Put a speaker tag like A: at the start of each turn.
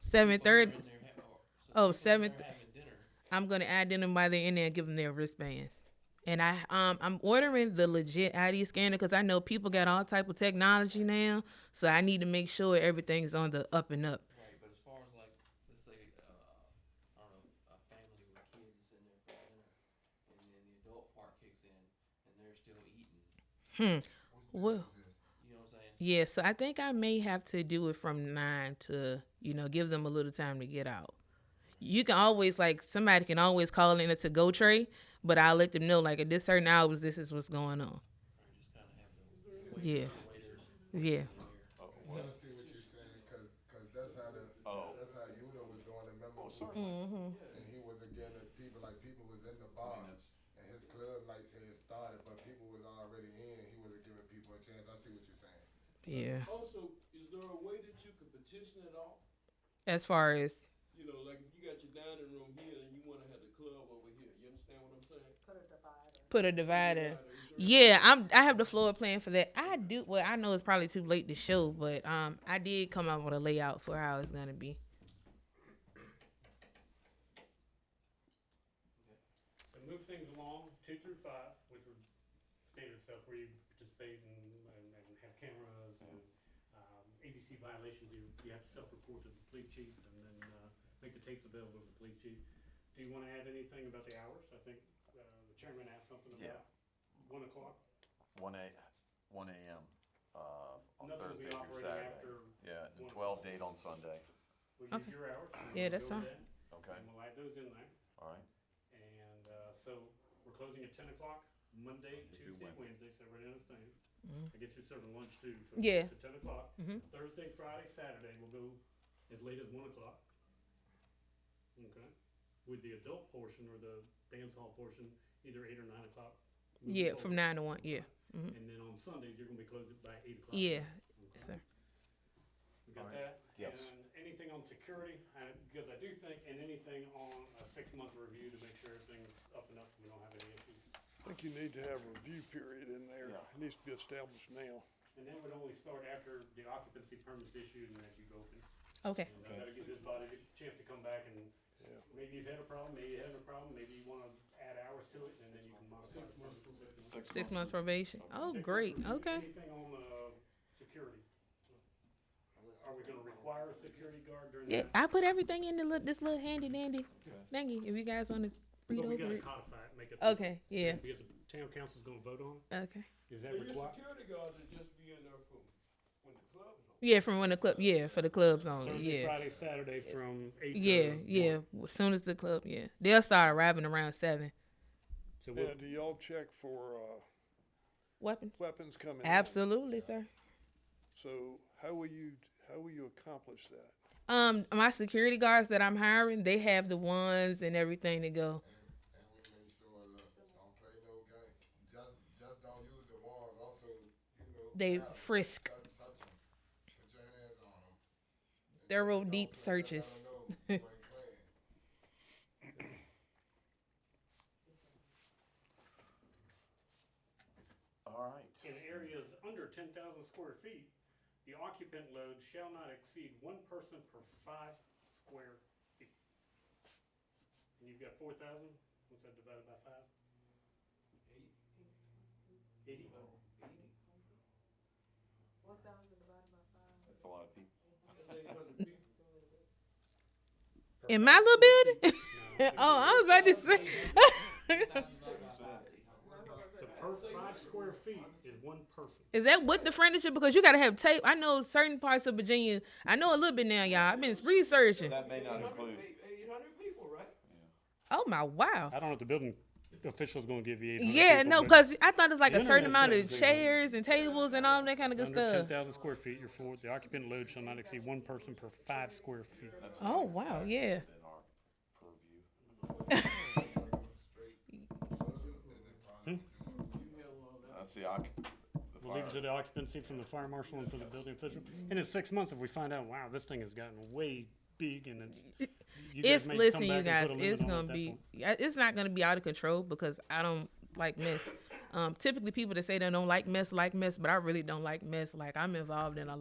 A: Seven thirty.
B: They're ha- or- so
A: Oh,
B: they're-
A: seven
B: They're having dinner.
A: I'm gonna add them while they're in there and give them their wristbands. And I um I'm ordering the legit ID scanner because I know people got all type of technology now, so I need to make sure everything's on the up and up.
B: Right, but as far as like, let's say, uh, I don't know, a family with kids is in there for dinner, and then the adult part kicks in, and they're still eating.
A: Well,
B: You know what I'm saying?
A: yeah. So I think I may have to do it from nine to you know give them a little time to get out. You can always like somebody can always call in a to go tray, but I'll let them know like at this certain hours this is what's going
B: Or
A: on.
B: just kind of have the
A: Yeah,
B: waiters.
A: yeah.
C: I
D: Oh, what?
C: wanna see what you're saying, cause, 'cause that's how the,
D: Oh.
C: that's how Yuda was doing it, remember?
D: Oh, certainly.
C: And he was again, and people, like, people was in the bar, and his club nights had started, but people was already in, he wasn't giving people a chance, I see what you're saying.
A: Yeah.
E: Also, is there a way that you could petition at all?
A: As far as
E: You know, like if you got your dining room here and you wanna have the club over here, you understand what I'm saying?
A: put a divider.
E: Right, is there-
A: Yeah, I'm. I have the floor plan for that. I do. Well, I know it's probably too late to show, but um, I did come up with a layout for how it's gonna be.
F: And move things along, two through five, which were standard stuff where you participate and, and, and have cameras and, um, ABC violations, you, you have to self-report to the police chief and then, uh, make the tapes available to the police chief. Do you wanna add anything about the hours? I think, uh, the chairman asked something
D: Yeah.
F: about one o'clock.
D: One a, one a.m. Uh, on
F: Nothing will
D: Thursday
F: be
D: through
F: operating
D: Saturday.
F: after,
D: Yeah, and
F: one.
D: twelve date on Sunday.
F: we
A: Okay.
F: use your hours. and
A: Yeah,
F: we'll
A: that's
F: go with
A: fine.
F: that,
D: Okay,
F: And we'll add those in there.
D: all right.
F: And, uh, so we're closing at ten o'clock, Monday,
D: Monday through
F: Tuesday, Wednesday, so everybody understands. I guess you're serving lunch too. so
A: Mm-hmm. Yeah.
F: To ten o'clock.
A: Mhm.
F: Thursday, Friday, Saturday, we'll go as late as one o'clock. Okay, with the adult portion or the dance hall portion, either eight or nine o'clock. moving
A: Yeah, from nine
F: forward.
A: to one. Yeah, mhm.
F: And then on Sundays, you're gonna be closed by eight o'clock.
A: yeah.
F: Okay.
A: sir.
F: We got
D: Alright.
F: that?
D: Yes.
F: And anything on security, I- because I do think, and anything on a six-month review to make sure everything's up and up, we don't have any issues.
G: I think you need to have a review period in there.
D: Yeah.
G: It needs to be established now.
F: And that would only start after the occupancy permit's issued and as you go open.
A: Okay.
F: And I gotta give this body a chance to come back and,
G: Yeah.
F: maybe you've had a problem, maybe you haven't a problem, maybe you wanna add hours to it, and then you can modify. it.
A: Six months probation. Oh, great. Okay.
F: Anything on, uh, security? Are we gonna require a security guard during
A: Yeah,
F: that?
A: I put everything in the lit- this little handy dandy thingy. If you guys want to read
F: But we
A: over
F: gotta
A: it.
F: codify it, make it.
A: Okay. Yeah.
F: Because the town council's gonna vote on, it.
A: Okay.
F: is
E: Now,
F: that
E: Your
F: required?
E: security guards would just be in there for when the club is on.
A: Yeah, from when the club. Yeah, for the clubs only.
F: Thursday,
A: Yeah.
F: Friday, Saturday from eight to.
A: Yeah.
F: one.
A: Yeah. As soon as the club. Yeah. They'll start arriving around seven.
F: So we'll,
G: Yeah, do y'all check for, uh,
A: Weapons.
G: weapons coming in?
A: Absolutely, sir.
G: So how will you, how will you accomplish that?
A: Um, my security guards that I'm hiring, they have the ones and everything to go.
C: And we make sure, look, don't play no game, just, just don't use the walls, also, you know.
A: They
C: grab 'em,
A: frisk.
C: Touch, touch 'em. put your hands on 'em.
A: Thorough
C: Don't
A: deep
C: play, let 'em
A: searches.
C: know you ain't playing.
D: All right.
F: in areas under ten thousand square feet, the occupant load shall not exceed one person per five square feet. And you've got four thousand, what's that divided by five? Eighty?
D: That's a lot of people.
A: In my little building? oh, I was about to say.
F: So per five square feet is one person.
A: Is that with the furniture? Because you gotta have tape. I know certain parts of Virginia. I know a little bit now, y'all. I've been researching.
D: That may not include.
B: Eight hundred people, right?
A: Oh my wow.
F: I don't know if the building official's gonna give you eight hundred
A: Yeah, no, cause I thought it's like a certain amount of chairs and tables and all that kind of good
F: Under ten
A: stuff.
F: thousand square feet, your floor, the occupant load shall not exceed one person per five square feet.
A: Oh wow, yeah.
D: In our purview. That's the occ. the
F: We'll leave it
D: fire.
F: to the occupancy from the fire marshal and from the building official. And in six months, if we find out, wow, this thing has gotten way big and it's. you guys
A: It's
F: may come
A: listen, you
F: back and
A: guys.
F: put a limit
A: It's
F: on it at
A: gonna
F: that
A: be.
F: point.
A: yeah, It's not gonna be out of control because I don't like mess. Um, typically, people that say they don't like mess like mess, but I really don't like mess. Like I'm involved in a